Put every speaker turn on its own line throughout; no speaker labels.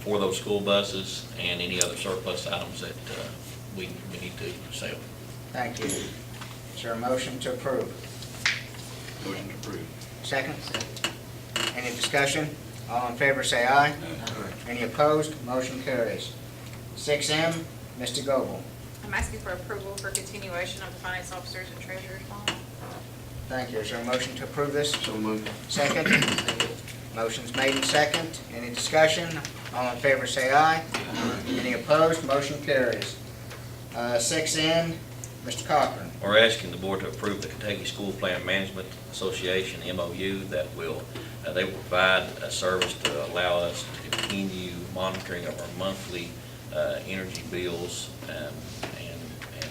for those school buses and any other surplus items that uh, we, we need to sell.
Thank you. Is there a motion to approve?
Motion approved.
Second? Any discussion? All in favor, say aye. Any opposed? Motion carries. Six M, Mr. Goble.
I'm asking for approval for continuation of the finance officers and treasurer's bond.
Thank you. Is there a motion to approve this?
So moved.
Second? Motion's made and second. Any discussion? All in favor, say aye. Any opposed? Motion carries. Uh, Six N, Mr. Cochran.
We're asking the board to approve the Kentucky School Plan Management Association MOU that will, uh, they will provide a service to allow us to continue monitoring of our monthly uh, energy bills um, and, and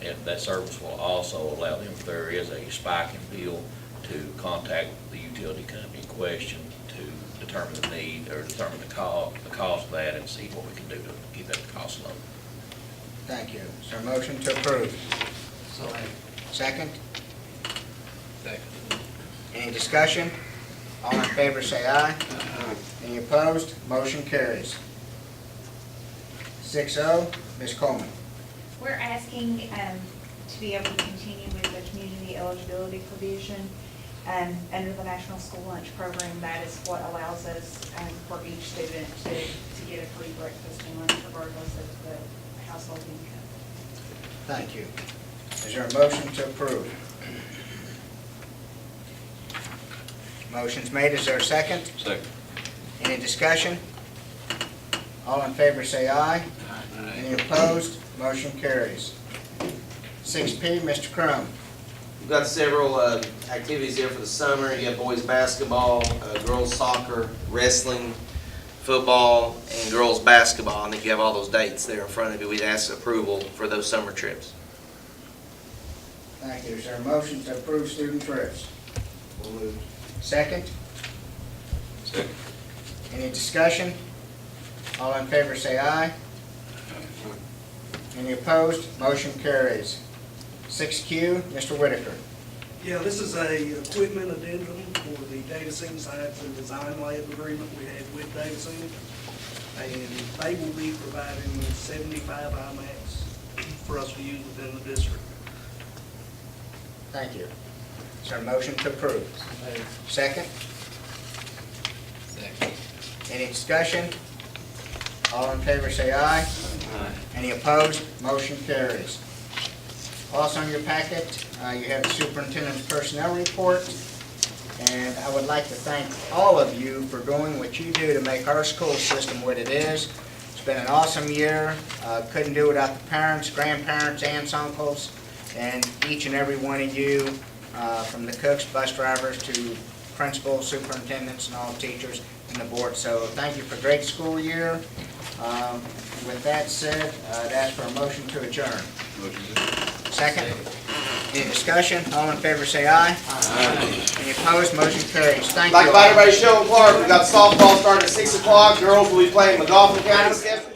to, and that service will also allow them, if there is a spike in bill, to contact the utility company in question to determine the need or determine the co, the cost of that and see what we can do to keep that cost low.
Thank you. Is there a motion to approve? Second?
Second.
Any discussion? All in favor, say aye. Any opposed? Motion carries. Six oh, Ms. Coleman.
We're asking um, to be able to continue with the community eligibility provision um, under the National School Lunch Program. That is what allows us um, for each student to, to get a free breakfast and lunch regardless of the household income.
Thank you. Is there a motion to approve? Motion's made. Is there a second?
Second.
Any discussion? All in favor, say aye. Any opposed? Motion carries. Six P, Mr. Crum.
We've got several uh, activities there for the summer. You have boys basketball, uh, girls soccer, wrestling, football, and girls basketball. I think you have all those dates there in front of you. We'd ask approval for those summer trips.
Thank you. Is there a motion to approve student trips? Second?
Second.
Any discussion? All in favor say aye. Any opposed? Motion carries. Six Q, Mr. Whitaker.
Yeah, this is a equipment addendum for the Davidson Science and Design Lab agreement we had with Davidson. And they will be providing seventy-five IMAX for us to use within the district.
Thank you. Is there a motion to approve? Second?
Second.
Any discussion? All in favor say aye. Any opposed? Motion carries. Also in your packet, uh, you have the superintendent's personnel report. And I would like to thank all of you for doing what you do to make our school system what it is. It's been an awesome year. Uh, Couldn't do without the parents, grandparents, aunts, uncles, and each and every one of you, uh, from the cooks, bus drivers, to principals, superintendents, and all teachers and the board. So thank you for a great school year. Um, With that said, I'd ask for a motion to adjourn.
Motion approved.
Second? Any discussion? All in favor, say aye. Any opposed? Motion carries. Thank you.
Like
all.
by everybody, Sheldon Clark, we've got softball starting at six o'clock. Girls will be playing McGoffin County Step.